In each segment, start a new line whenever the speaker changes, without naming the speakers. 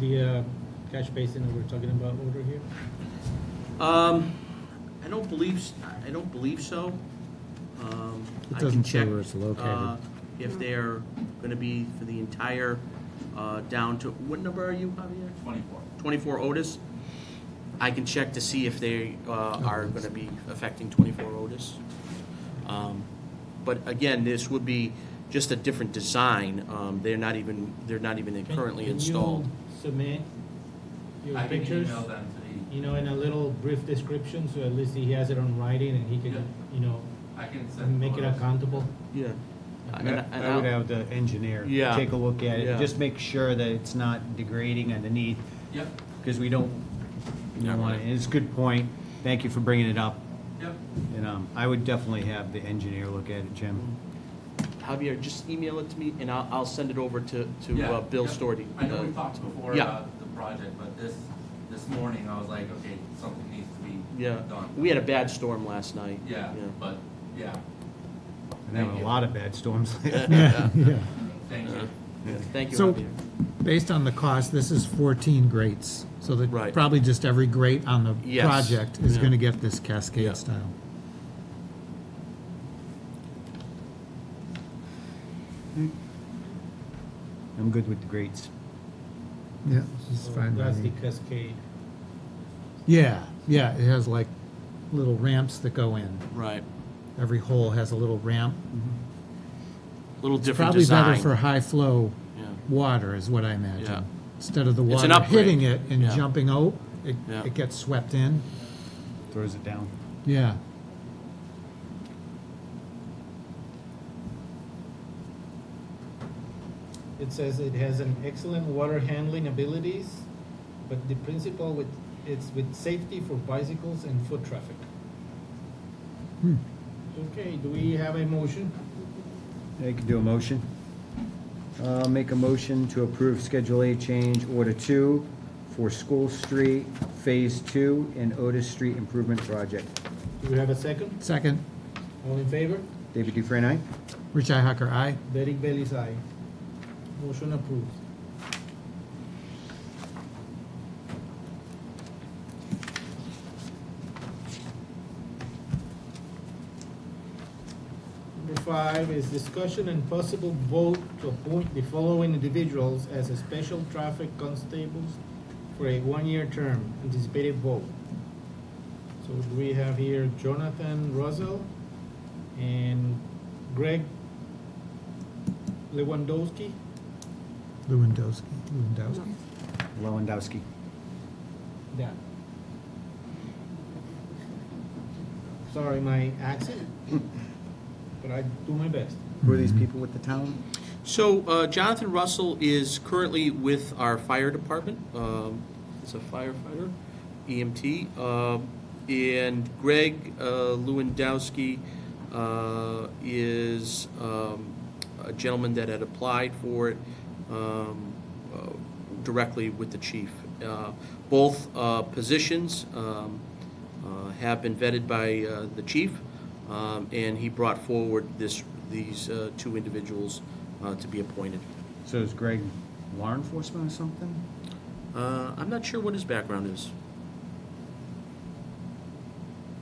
the uh, catch basin that we're talking about over here?
Um, I don't believe, s- I don't believe so. Um,
It
I can
doesn't show
check,
where it's located.
uh, If they're gonna be for the entire, uh, down to, what number are you, Javier?
Twenty-four.
Twenty-four Otis? I can check to see if they, uh, are gonna be affecting twenty-four Otis. Um, But again, this would be just a different design. Um, they're not even, they're not even
Can-
currently
can you
installed.
Submit your
I can
pictures,
email them to
you know, in a little brief description, so at least he has it on writing and he
Yeah.
can, you know,
the, I can send.
make it
photos.
accountable.
Yeah. And- and
I would have the engineer
Yeah.
take a look at
Yeah.
it, just make sure that it's not degrading underneath,
Yep,
because we don't, we
Yeah,
don't want
right.
it. It's a good point, thank you for bringing it up.
yep.
And um, I would definitely have the engineer look at it, Jim.
Javier, just email it to me, and I'll, I'll send it over to,
Yeah,
to uh, Bill
yep.
Storti.
I know
Uh,
we talked before
yeah.
about the project, but this, this morning, I was like, okay, something needs to be
Yeah,
done.
we had a bad storm last night.
Yeah, but, yeah,
And there were a lot of bad storms.
thank
Uh-huh.
you.
Yeah. Thank you,
So-
Javier.
Based on the cost, this is 14 grates, so
Right.
that probably just every grate on the
Yes.
project is
Yeah.
going to get this
Yeah.
cascade style.
I'm good with the grades.
Yeah, it's
So
fine by
That's the
me.
cascade.
Yeah, yeah, it has like little ramps that go in.
Right,
Every hole has a little ramp.
little different
Probably better
design.
for high flow
Yeah.
water is what I
Yeah.
imagine. Instead of the
It's an
water
upgrade.
hitting it and
Yeah.
jumping out, it,
Yeah.
it gets swept in.
Throws it down.
Yeah.
It says it has an excellent water handling abilities, but the principle with, it's with safety for bicycles and foot traffic.
Hmm.
Okay, do we have a motion?
I can do a motion. Uh, Make a motion to approve Schedule A change order two for School Street Phase Two and Otis Street Improvement Project.
Do we have a second?
Second,
All in favor?
David Dufresne, aye?
Rich Ihacker, aye.
Derek Bailey's aye. Motion approved. Number five is discussion and possible vote to appoint the following individuals as a special traffic constables for a one-year term, anticipated vote. So we have here Jonathan Russell and Greg Lewandowski.
Lewandowski, Lewandowski.
Lewandowski.
Yeah. Sorry, my accent, but I do my best.
Who are
Mm-hmm.
these people with the town?
So uh, Jonathan Russell is currently with our fire department, um, is a firefighter, EMT. um, And Greg uh, Lewandowski uh, is um, a gentleman that had applied for it um, uh, directly with the chief. Uh, Both uh, positions um, uh, have been vetted by uh, the chief, um, and he brought forward this, these uh, two individuals uh, to be appointed.
So is Greg law enforcement or something?
Uh, I'm not sure what his background is.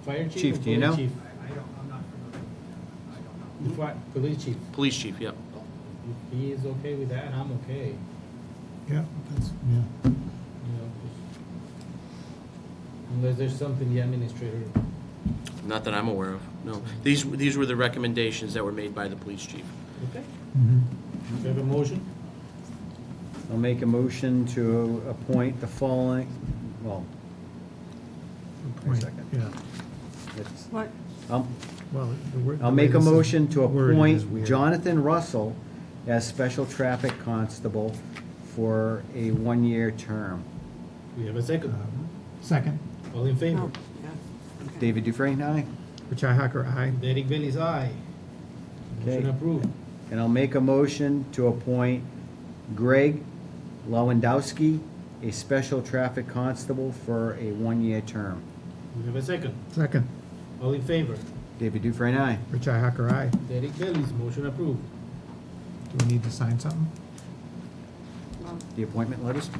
Fire chief.
Chief,
or
do you
police
know?
chief?
I don't, I'm not familiar with that. I don't know.
The fi- police chief.
Police chief, yep.
If he is okay with that, I'm okay.
Yeah, that's, yeah.
You know, just- Unless there's something the administrator.
Not that I'm aware of, no. These, these were the recommendations that were made by the police chief.
Okay.
Mm-hmm.
Mhm.
Do you have a motion?
I'll make a motion to appoint the following, well,
Good point.
second.
Yeah,
let's,
What,
I'll,
well, the word.
I'll
the way
make a
this is
motion to
worded is
appoint
weird.
Jonathan Russell as special traffic constable for a one-year term.
Do you have a second?
Second,
Uh-huh. All in favor?
no, Oh, yeah. okay.
David Dufresne, aye?
Rich Ihacker, aye.
Derek Bailey's aye. Motion
Okay.
approved.
And I'll make a motion to appoint Greg Lewandowski, a special traffic constable for a one-year term.
Do you have a second?
Second,
All in favor?
David Dufresne, aye?
Rich Ihacker, aye.
Derek Bailey's motion approved.
Do we need to sign something?
Well,
The appointment letters?